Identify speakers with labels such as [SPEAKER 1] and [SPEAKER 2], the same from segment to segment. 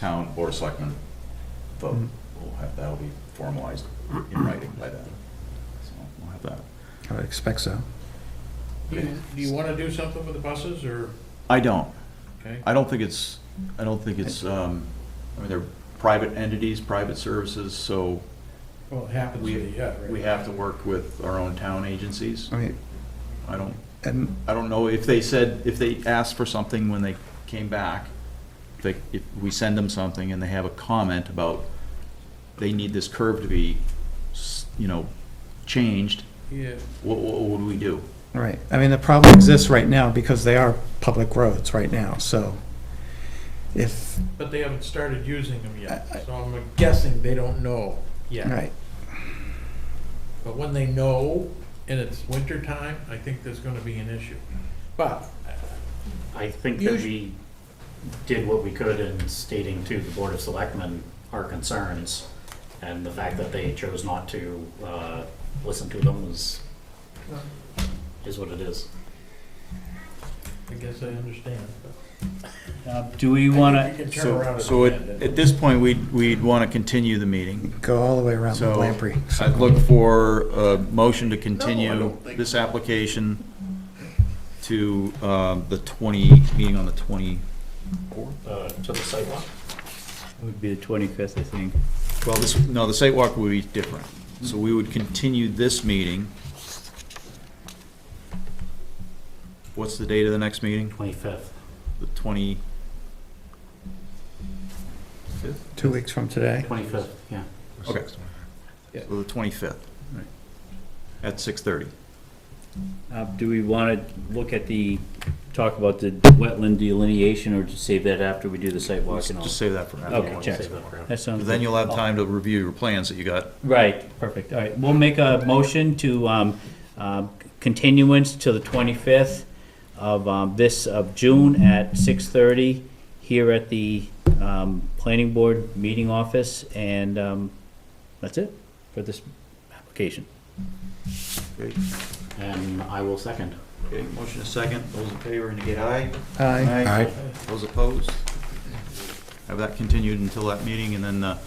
[SPEAKER 1] town board of selectmen vote. We'll have, that'll be formalized in writing by then. So we'll have that.
[SPEAKER 2] I would expect so.
[SPEAKER 3] Do you- do you want to do something with the buses, or,
[SPEAKER 1] I don't,
[SPEAKER 3] okay?
[SPEAKER 1] I don't think it's, I don't think it's, um, I mean, they're private entities, private services, so
[SPEAKER 3] Well, it happens,
[SPEAKER 1] We-
[SPEAKER 3] yeah, right.
[SPEAKER 1] we have to work with our own town agencies.
[SPEAKER 2] I mean,
[SPEAKER 1] I don't,
[SPEAKER 2] and
[SPEAKER 1] I don't know if they said, if they asked for something when they came back, if they, if we send them something and they have a comment about they need this curve to be, s- you know, changed,
[SPEAKER 3] Yeah,
[SPEAKER 1] what, what would we do?
[SPEAKER 2] Right, I mean, the problem exists right now because they are public roads right now, so if,
[SPEAKER 3] but they haven't started using them yet,
[SPEAKER 2] I- I-
[SPEAKER 3] so I'm guessing they don't know yet.
[SPEAKER 2] right,
[SPEAKER 3] But when they know, and it's winter time, I think there's going to be an issue. But,
[SPEAKER 4] I think that
[SPEAKER 3] Usu-
[SPEAKER 4] we did what we could in stating to the Board of Selectmen our concerns, and the fact that they chose not to uh, listen to them was, is what it is.
[SPEAKER 3] I guess I understand. but
[SPEAKER 5] Uh, Do we want to,
[SPEAKER 3] You can turn around
[SPEAKER 1] So,
[SPEAKER 3] and
[SPEAKER 1] so at,
[SPEAKER 3] amend it.
[SPEAKER 1] at this point, we'd, we'd want to continue the meeting.
[SPEAKER 2] go all the way around
[SPEAKER 1] So
[SPEAKER 2] Lamprey.
[SPEAKER 1] I'd look for a motion to continue
[SPEAKER 3] don't think-
[SPEAKER 1] this application to, um, the twenty, meeting on the twenty.
[SPEAKER 4] Uh, To the sidewalk,
[SPEAKER 5] it would be the 25th, I think.
[SPEAKER 1] Well, this, no, the site walk would be different. So we would continue this meeting. What's the date of the next meeting?
[SPEAKER 4] 25th.
[SPEAKER 1] The twenty?
[SPEAKER 2] Two weeks from today,
[SPEAKER 4] 25th, yeah.
[SPEAKER 1] Okay. So the twenty-fifth.
[SPEAKER 5] Right.
[SPEAKER 1] At six-thirty.
[SPEAKER 5] Uh, Do we want to look at the, talk about the wetland delineation, or just save that after we do the site walk and all?
[SPEAKER 1] Just save that for now.
[SPEAKER 5] Okay, check.
[SPEAKER 4] Save that for-
[SPEAKER 5] That sounds
[SPEAKER 1] Then
[SPEAKER 5] good.
[SPEAKER 1] you'll have time to review your plans that you got.
[SPEAKER 5] Right, perfect, all right. We'll make a motion to um, um, continuance to the 25th of um, this, of June at 6:30 here at the um, Planning Board Meeting Office, and um, that's it for this application.
[SPEAKER 4] And I will second.
[SPEAKER 1] Okay, motion is second. Those in favor indicate aye.
[SPEAKER 2] aye,
[SPEAKER 1] Aye. Those opposed? Have that continued until that meeting, and then the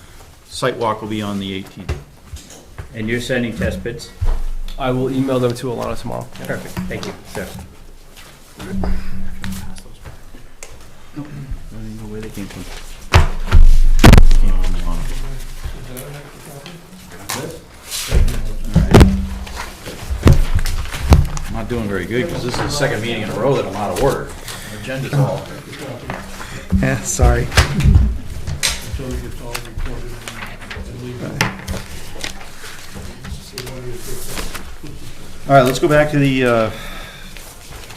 [SPEAKER 1] site walk will be on the eighteenth.
[SPEAKER 5] And you're sending test bits?
[SPEAKER 6] I will email them to Alana tomorrow.
[SPEAKER 5] Perfect, thank you, sir. I don't even know where they came from.
[SPEAKER 1] I'm not doing very good, because this is the second meeting in a row that I'm out of order. Agenda's all.
[SPEAKER 2] yeah, sorry.
[SPEAKER 1] All right, let's go back to the uh,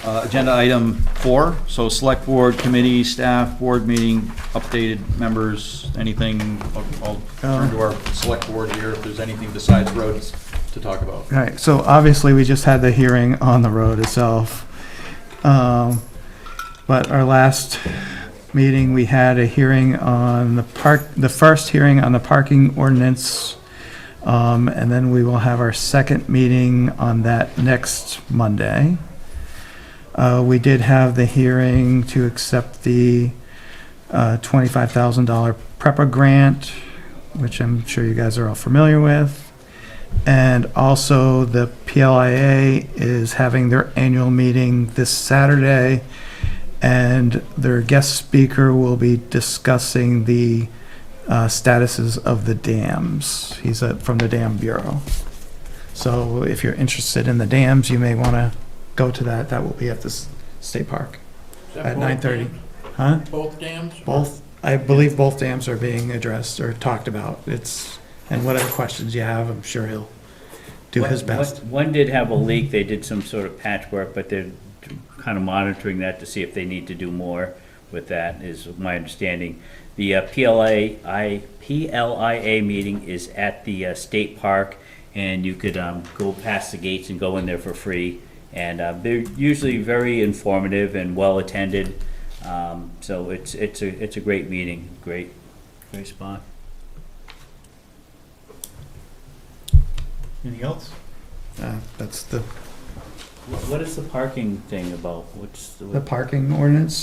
[SPEAKER 1] uh, agenda item four. So select board, committee, staff, board meeting, updated members, anything. I'll- I'll turn to our select board here if there's anything besides roads to talk about.
[SPEAKER 2] All right, so obviously, we just had the hearing on the road itself. Um, But our last meeting, we had a hearing on the park, the first hearing on the parking ordinance. Um, And then we will have our second meeting on that next Monday. Uh, We did have the hearing to accept the uh, $25,000 PREPA grant, which I'm sure you guys are all familiar with. And also, the PLIA is having their annual meeting this Saturday, and their guest speaker will be discussing the uh, statuses of the dams. He's uh, from the Dam Bureau. So if you're interested in the dams, you may want to go to that. That will be at the s- State Park.
[SPEAKER 3] Is that
[SPEAKER 2] at
[SPEAKER 3] both
[SPEAKER 2] 9:30.
[SPEAKER 3] dams?
[SPEAKER 2] Huh?
[SPEAKER 3] Both dams?
[SPEAKER 2] Both, I believe both dams are being addressed or talked about. It's, and whatever questions you have, I'm sure he'll do his
[SPEAKER 5] One-
[SPEAKER 2] best.
[SPEAKER 5] one- One did have a leak, they did some sort of patchwork, but they're kind of monitoring that to see if they need to do more with that, is my understanding. The uh, PLA, I, PLIA meeting is at the uh, state park, and you could um, go past the gates and go in there for free. And uh, they're usually very informative and well-attended, Um, so it's, it's a, it's a great meeting, great, great spot.
[SPEAKER 1] Anything else?
[SPEAKER 2] Uh, That's the,
[SPEAKER 5] What- What is the parking thing about? What's?
[SPEAKER 2] the parking ordinance.